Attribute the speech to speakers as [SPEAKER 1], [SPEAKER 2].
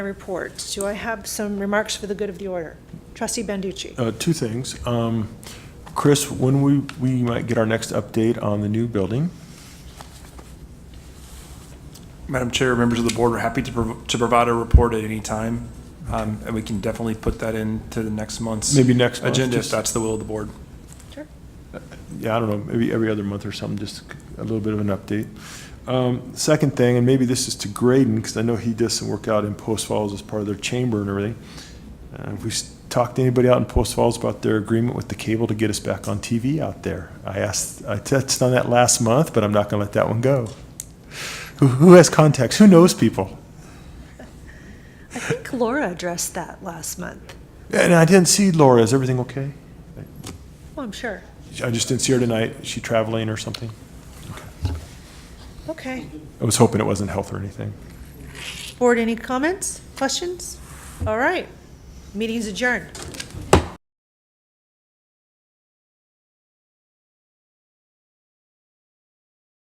[SPEAKER 1] report. Do I have some remarks for the good of the order? Trustee Banducci?
[SPEAKER 2] Uh, Two things. Um, Chris, when we, we might get our next update on the new building?
[SPEAKER 3] Madam Chair, members of the board, we're happy to, prov- to provide a report at any time. Um, and we can definitely put that into the next month's.
[SPEAKER 2] Maybe next month,
[SPEAKER 3] Agenda, if
[SPEAKER 2] just-
[SPEAKER 3] that's the will of the board.
[SPEAKER 1] Sure.
[SPEAKER 2] yeah, I don't know, maybe every other month or something, just a little bit of an update. Um, Second thing, and maybe this is to Graydon, because I know he does some work out in Post Falls as part of their chamber and everything. Uh, Have we s- talked to anybody out in Post Falls about their agreement with the cable to get us back on TV out there? I asked, I touched on that last month, but I'm not going to let that one go. Who- Who has contacts? Who knows people?
[SPEAKER 1] I think Laura addressed that last month.
[SPEAKER 2] And I didn't see Laura, is everything okay?
[SPEAKER 1] Well, Oh, I'm sure.
[SPEAKER 2] I just didn't see her tonight, is she traveling or something?
[SPEAKER 1] Okay.
[SPEAKER 2] I was hoping it wasn't health or anything.
[SPEAKER 1] Board, any comments, questions? All right. Meeting's adjourned.